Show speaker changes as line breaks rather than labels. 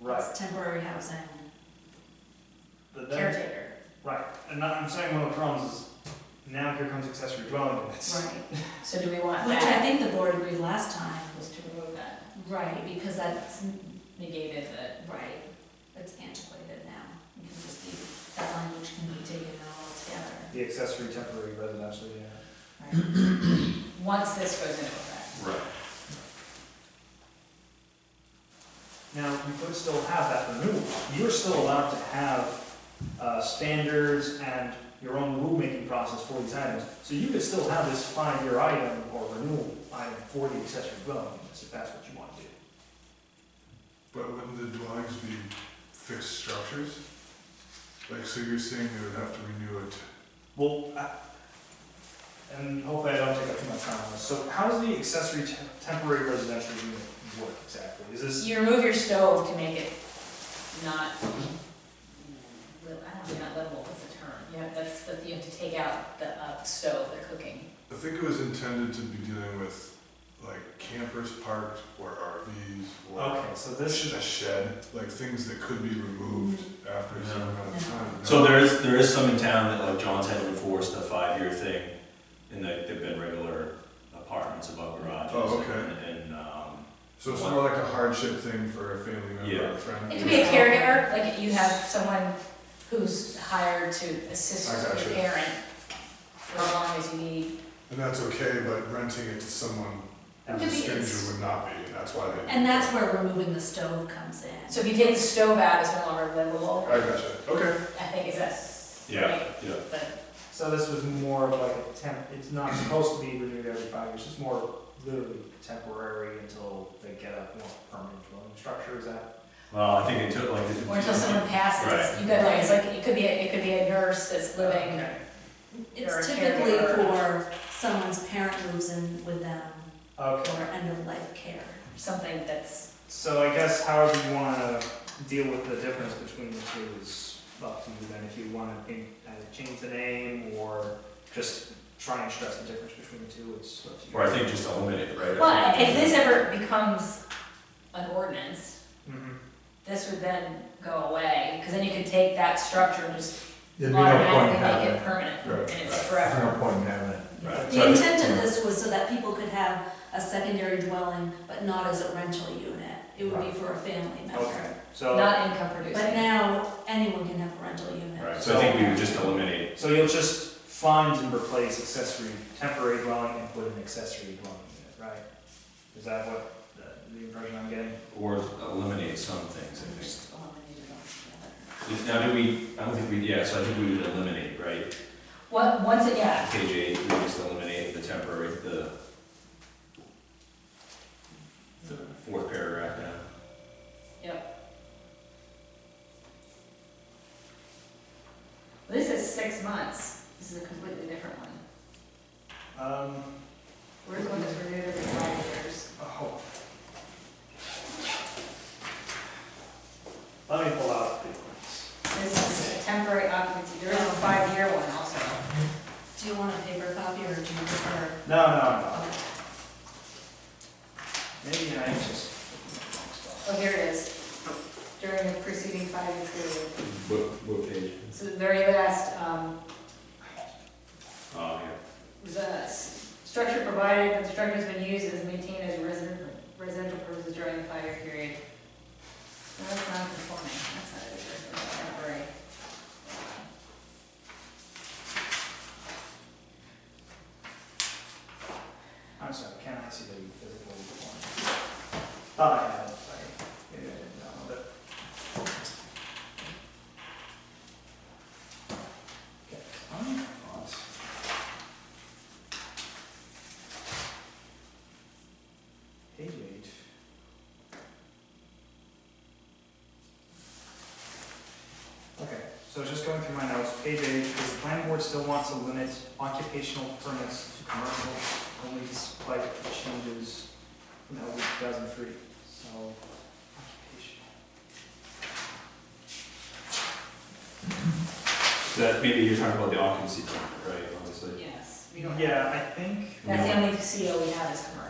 Right.
It's temporary housing
But then-
caretaker,
Right, and not, I'm saying one of the problems is now here comes accessory dwelling units.
right?
So do we want
Which I
that,
think the board agreed last time,
was to remove that,
right, because that's,
negated the,
right, it's antiquated now. You can just leave, that language can be taken out altogether,
The accessory temporary residential, yeah.
right?
once this goes into effect.
Right.
Now, you could still have that renewal, you're still allowed to have, uh, standards and your own rulemaking process for these items. So you could still have this five-year item or renewal item for the accessory dwelling units, if that's what you want to do.
But wouldn't the dwellings be fixed structures? Like, so you're saying they would have to renew it?
Well, I- and hopefully I don't take up too much time on this, so how does the accessory te- temporary residential unit work exactly? Is this,
You remove your stove to make it not, mm, li- I don't know, not livable, what's the term? You have, that's, that you have to take out the uh, stove, they're cooking.
I think it was intended to be dealing with like campers parked or RVs or
okay, so
a
this
sh- a shed, like things that could be removed after a certain amount of time. no?
So there is, there is some in town that, like John's had to enforce the five-year thing, and they, they've been regular apartments above garages.
Oh, okay.
and- And, um,
So it's more like a hardship thing for a family member or
Yeah.
a friend.
It could be a caregiver, like you have someone who's hired to assist
I gotcha.
your parent for as long as you need.
And that's okay, but renting it to someone
could
It
who's a
be- it's-
stranger would not be, and that's why they.
And that's where removing the stove comes in.
So if you take the stove out, it's no longer livable,
I gotcha, okay.
I think is that's.
yeah, yeah.
But
So this was more of like a temp, it's not supposed to be renewed every five years, it's more literally temporary until they get a more permanent dwelling structure, is that?
Well, I think it took like.
Or until someone passes,
Right.
you got like, it's like, it could be, a- it could be a nurse that's living,
Okay.
It's typically for someone's parent moves in with them
Okay,
for end of life care.
something that's,
so I guess however you wanna deal with the difference between the two is up to you then, if you wanna in- either change the name or just try and stress the difference between the two, it's up to you.
Or I think just eliminate it, right?
well, if this ever becomes an ordinance,
Mhm.
this would then go away, because then you could take that structure and just
There'd be no point in
automatically
having
make
it.
it permanent,
Right,
and
right.
it's
There's
forever.
no point in having it.
Right.
The intent of this was so that people could have a secondary dwelling, but not as a rental unit. It would be for a family member.
Okay, so,
Not income
But
producing.
now, anyone can have a rental unit.
Right, so I think we would just eliminate,
so you'll just find and replace accessory, temporary dwelling and put an accessory dwelling unit, right? Is that what, the- the impression I'm getting?
or eliminate some things,
um,
I think.
Just eliminate it altogether.
If- Now, do we, I don't think we, yeah, so I think we would eliminate, right?
What, once it, yeah,
Page eight, we just eliminate the temporary, the the fourth paragraph now.
this is six months, this is a completely different one.
Um,
We're going to renew every five years.
oh. Let me pull out the ones.
This is a temporary occupancy, there is a five-year one also.
Do you want a paper copy or do you prefer?
No, no, no.
okay.
Maybe I just.
Oh, here it is. During the preceding five-year period.
What, what page?
So the very last, um,
Oh, yeah.
the s- structure provided, when the structure has been used as maintained as residential, residential purposes during the five-year period. No, That's not conforming, that's not a that's temporary.
I'm sorry, can I see the physical one? Thought I had it, sorry. Maybe I didn't download it. Okay, um, lots. Page eight. Okay, so just going through my notes, page eight, is the planning board still wants to limit occupational permits to commercial only despite the changes from LD 2003, so occupational.
That, maybe you're talking about the occupancy permit, right, obviously?
Yes, we don't have.
Yeah, I think,
That's the only CO we have is commercial.